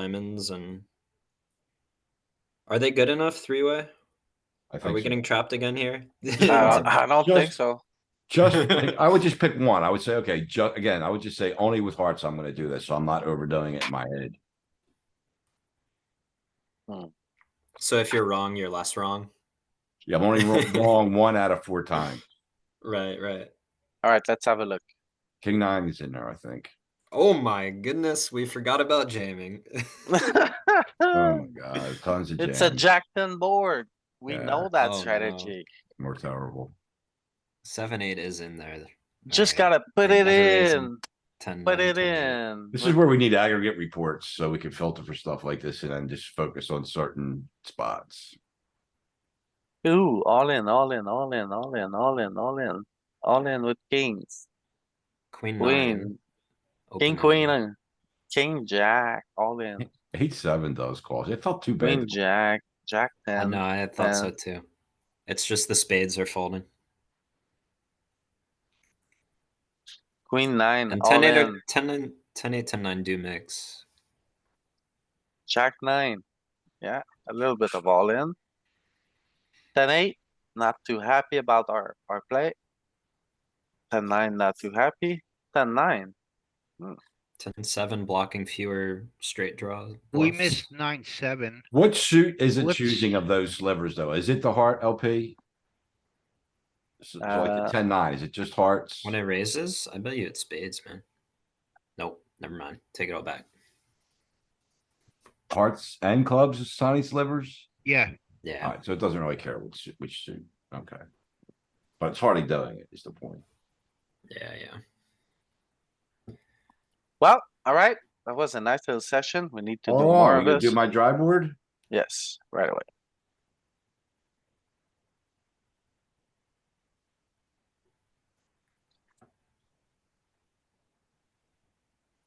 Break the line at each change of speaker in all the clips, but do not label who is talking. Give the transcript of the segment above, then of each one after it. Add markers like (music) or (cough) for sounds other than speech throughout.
diamonds and are they good enough three way?
I
Are
think,
we
so.
getting trapped again here? (laughs)
Uh, I don't think
Just-
so.
just, pick- I would just pick one. I would say, okay, ju- again, I would just say only with hearts I'm gonna do this, so I'm not overdoing it in my head.
so if you're wrong, you're less wrong.
Yeah, I'm only wrong- wrong one out of four times.
Right, right.
Alright, let's have
(laughs)
a look.
King nine is in there, I think.
Oh my goodness, we forgot about jamming. (laughs)
(laughs) Oh my god, tons of
Uh, It's a
jams,
jack ten board. We
Yeah.
know that
Oh, no.
strategy.
more terrible.
Seven eight is in there.
Just
Alright.
gotta put it
Another reason.
in,
Ten.
put
nine,
it
10.
in.
This is where we need aggregate reports, so we can filter for stuff like this and then just focus on certain spots.
Ooh, all in, all in, all in, all in, all in, all in, all in with kings,
Queen.
queen,
nine, open
king,
hand.
queen, and king, jack, all in,
Eight, seven does calls. It felt too
queen,
bad.
jack, jack
I know.
ten.
Uh, I thought so
and-
too. It's just the spades are folding.
Queen nine,
And
Mm, all
10 8 or
in,
10 9 10 8 10 9 do mix.
jack nine. Yeah, a little bit of all in. Ten eight, not too happy about our, our play. Ten nine, not too happy. Ten nine,
10 7 blocking fewer straight draws.
We
bluffs.
missed nine, seven.
What suit is it
What's-
choosing of those slivers though? Is it the heart LP? So so like
Uh,
the ten nine, is it just hearts?
When it raises, I bet you it's spades, man. Nope, never mind. Take it all back.
Hearts and clubs is tiny slivers?
Yeah,
Yeah.
Alright, so it doesn't really care which, su- which suit, okay. But it's hardly doing it is the point.
Yeah, yeah.
well, alright, that was a nice little session, we need to do
Oh, are
more
you
of
gonna
this.
do my dry board?
Yes, right away.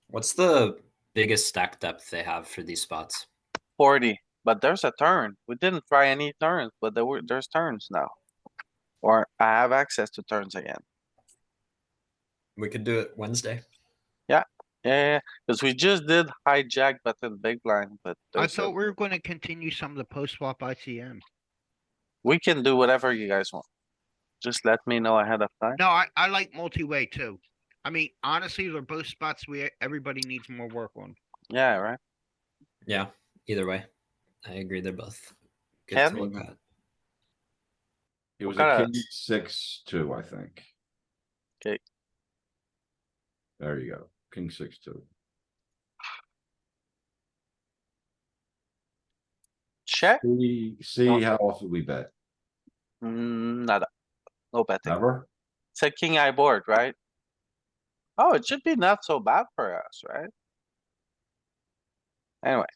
What's the biggest stack depth they have for these spots?
Forty, but there's a turn. We didn't try any turns, but there were, there's turns now. Or I have access to turns again.
We could do it Wednesday.
Yeah, cuz we just did hijack button big blind, but
I
there's a-
thought we were gonna continue some of the post flop ICM.
we can do whatever you guys want. Just let me know ahead of time.
No, I, I like multi-way too. I mean, honestly, they're both spots we, everybody needs more work on.
Yeah, right?
Yeah, either way. I agree. They're both good
Ken?
to look at.
It was
kinda-
a king six two, I think.
'Kay.
There you go, king six two.
Check,
See, see
Don't-
how often we bet,
Mm, nada. No betting.
never?
It's a king eye board, right? Oh, it should be not so bad for us, right? Anyway.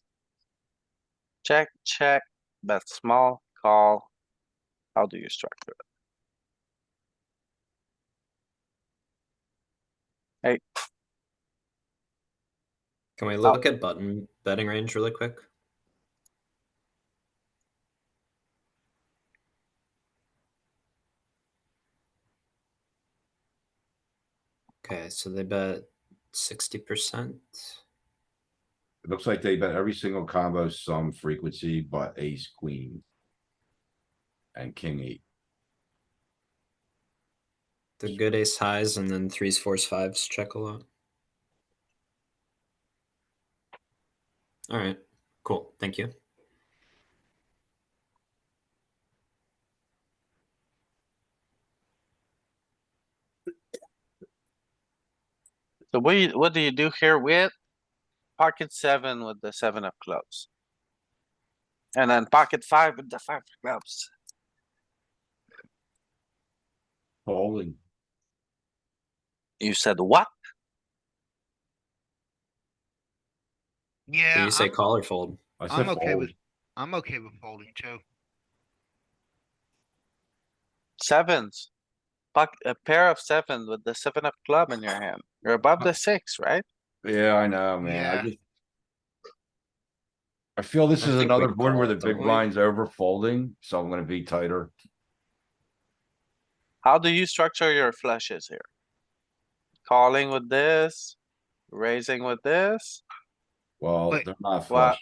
Check, check, bet small, call. How do you structure it? Hey,
Can we look at button betting range really quick? Okay, so they bet sixty percent.
It looks like they bet every single combo some frequency but ace, queen. And king eight.
The good ace highs and then threes, fours, fives check a lot. All right, cool. Thank you.
so what, you- what do you do here with? Pocket seven with the seven of clubs. And then pocket five with the five of clubs.
Calling.
You said what?
Did
Yeah,
you say
I'm,
call or fold?
I said
I'm okay with,
fold.
I'm okay with folding too.
Sevens. Fuck, a pair of seven with the seven of club in your hand. You're above the six, right?
Yeah, I know, man. I
Yeah.
just. I feel this
I
is
think
another
we
board where
call
the
it, don't
big
we?
blind's over folding, so I'm gonna be tighter.
How do you structure your flushes here? Calling with this, raising with this,
Well,
But-
they're not
Well,
flush.